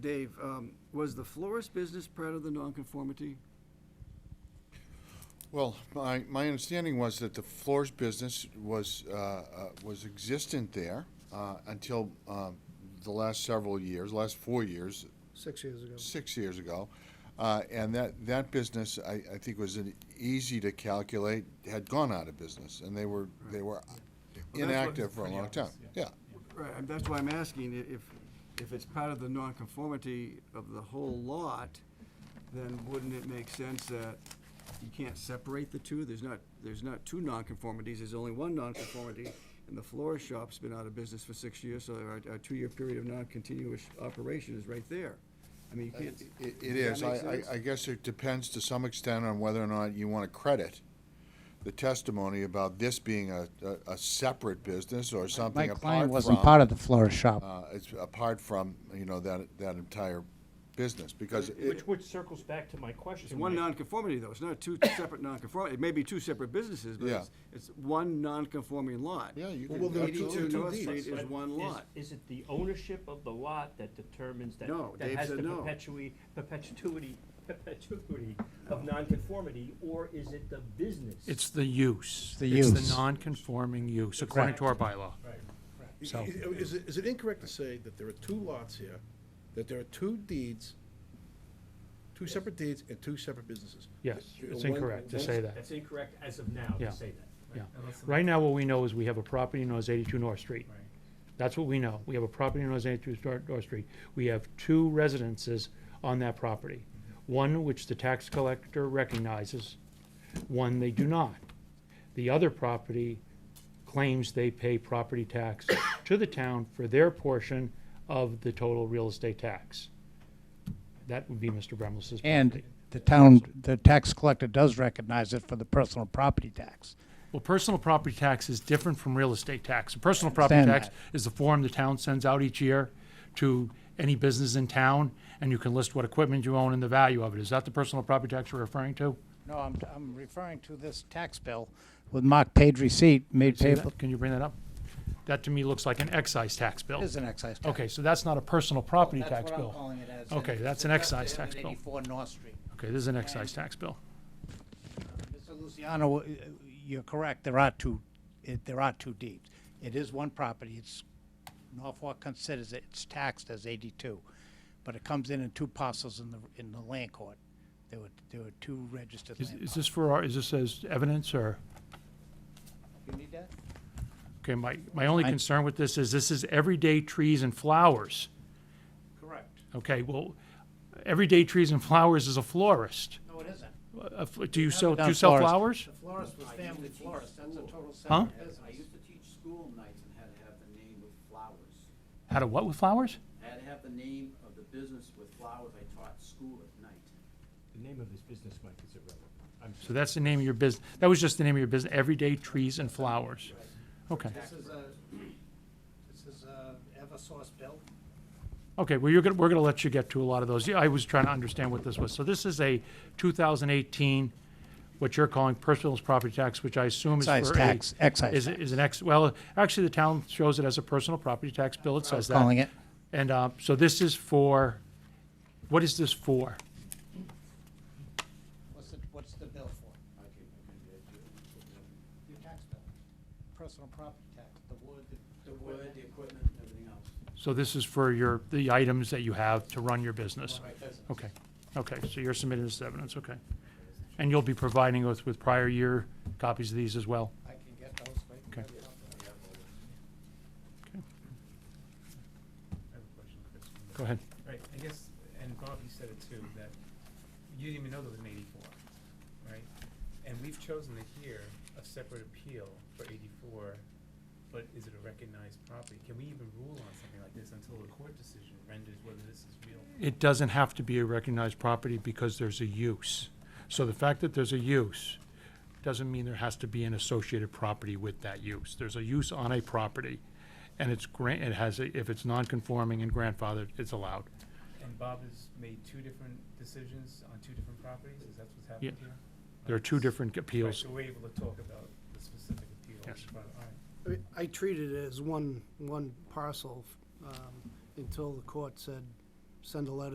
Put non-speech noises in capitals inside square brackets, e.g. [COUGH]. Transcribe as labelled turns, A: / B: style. A: Dave, um, was the florist business part of the nonconformity?
B: Well, my, my understanding was that the floors business was, uh, uh, was existent there uh, until um, the last several years, last four years,
C: Six years ago.
B: six years ago. Uh, And that, that business, I, I think was an easy to calculate, had gone out of business, and they were, they were
A: what-
B: inactive for a
D: Pretty
B: long time.
D: obvious,
B: Yeah,
A: Right, and that's why I'm asking, i- if, if it's part of the nonconformity of the whole lot, then wouldn't it make sense that you can't separate the two? There's not, there's not two nonconformities, there's only one nonconformity, and the florist shop's been out of business for six years, so our, our two-year period of non-continuous operation is right there. I mean, you
B: it
A: can't.
B: it
A: does
B: is.
A: that
B: I,
A: make
B: I-
A: sense?
B: I guess it depends to some extent on whether or not you want to credit the testimony about this being a, a- a separate business or
E: My
B: something apart from.
E: client wasn't part of the florist shop.
B: uh, it's apart from, you know, that, that entire business, because it,
D: Which, which circles back to my question.
A: It's one
D: Mike.
A: nonconformity, though, it's not two [COUGHS] separate nonconform, it may be two separate businesses, but
B: Yeah.
A: it's, it's one nonconforming lot.
B: yeah, you
C: Well,
B: could,
C: there are
A: Eighty-two
C: two
A: North
C: deeds.
A: Street
D: But
A: is one lot.
D: Is it the ownership of the lot that determines that?
A: No, Dave said
D: That
A: no.
D: has the perpetuity, perpetuity, perpetuity of nonconformity, or is it the business?
F: It's the use.
E: The
F: It's
E: use.
F: the non-conforming use, according to our bylaw.
D: Right.
F: So-
C: I- i- Is it, is it incorrect to say that there are two lots here, that there are two deeds, two separate deeds and two separate businesses?
F: Yes,
C: You know,
F: it's
C: one-
F: incorrect to
C: one-
F: say that,
D: That's incorrect as of now
F: Yeah.
D: to say that.
F: yeah.
D: Unless the-
F: Right now, what we know is we have a property known as eighty-two North Street.
D: Right.
F: That's what we know. We have a property known as eighty-two Stor- North Street. We have two residences on that property. One which the tax collector recognizes, one they do not. The other property claims they pay property tax [COUGHS] to the town for their portion of the total real estate tax. That would be Mr. Bremlis's.
E: And the town, the tax collector does recognize it for the personal property tax.
F: Well, personal property tax is different from real estate tax. A Personal property
E: Understand
F: tax
E: that.
F: is the form the town sends out each year to any business in town, and you can list what equipment you own and the value of it. Is that the personal property tax you're referring to?
E: No, I'm, I'm referring to this tax bill with marked paid receipt made
F: See
E: payable.
F: that? Can you bring that up? That to me looks like an excise tax bill.
E: It is an excise tax.
F: Okay, so that's not a personal property tax
E: That's what I'm
F: bill.
E: calling it as. and
F: Okay,
E: it's
F: that's an
E: addressed to
F: excise
E: him at
F: tax bill.
E: Eighty-four North Street.
F: Okay, this is an excise tax bill.
E: Mr. Luciano, uh, you're correct, there are two, it, there are two deeds. It is one property, it's, Norfolk considers it, it's taxed as eighty-two, but it comes in in two parcels in the, in the land court. There were, there were two registered
F: Is,
E: land
F: is
E: parcels.
F: this for our, is this as evidence or?
E: You need that?
F: Okay, my, my only
E: I-
F: concern with this is this is everyday trees and flowers.
E: Correct.
F: Okay, well, everyday trees and flowers is a florist.
E: No, it isn't.
F: A fl- Do you
E: haven't
F: sell, do you
E: done
F: sell
E: florist.
F: flowers?
E: The florist was family florist, that's a total
F: Huh?
E: separate business.
G: I used to teach school nights and had to have the name of flowers.
F: How to what with flowers?
G: I had to have the name of the business with flowers. I taught school at night.
D: The name of this business, Mike, is irrelevant. I'm
F: So that's the name of your business, that was just the name of your business, everyday trees and flowers. Okay,
E: This is a, this is a Eversource bill?
F: okay, well, you're gonna, we're gonna let you get to a lot of those. Yeah, I was trying to understand what this was. So this is a 2018, what you're calling personal property tax, which I assume is for a.
E: Excise tax, excise
F: Is, is an ex, well, actually, the town shows it as a personal property tax bill, it says that.
E: Calling it,
F: And uh, so this is for, what is this for?
E: what's the, what's the bill for? Your tax bill, personal property tax, the wood, the
G: The
E: wood.
G: wood, the equipment, and everything else.
F: So this is for your, the items that you have to run your business? Okay, okay, so you're submitting this evidence, okay. And you'll be providing us with prior year copies of these as well?
E: I can get those, right?
F: Okay.
H: I have a question, Chris.
F: Go ahead.
H: Right, I guess, and Bob, you said it too, that you didn't even know there was an eighty-four, right? And we've chosen to hear a separate appeal for eighty-four, but is it a recognized property? Can we even rule on something like this until a court decision renders whether this is real?
F: It doesn't have to be a recognized property because there's a use. So the fact that there's a use doesn't mean there has to be an associated property with that use. There's a use on a property, and it's grant, it has, a- if it's non-conforming and grandfathered, it's allowed.
H: And Bob has made two different decisions on two different properties, is that what's happened
F: Yeah.
H: here?
F: There are two
H: Right,
F: different appeals.
H: So we're able to talk about the specific appeal.
F: Yes.
H: but, all right.
I: I mean, I treated it as one, one parcel um, until the court said
E: send a letter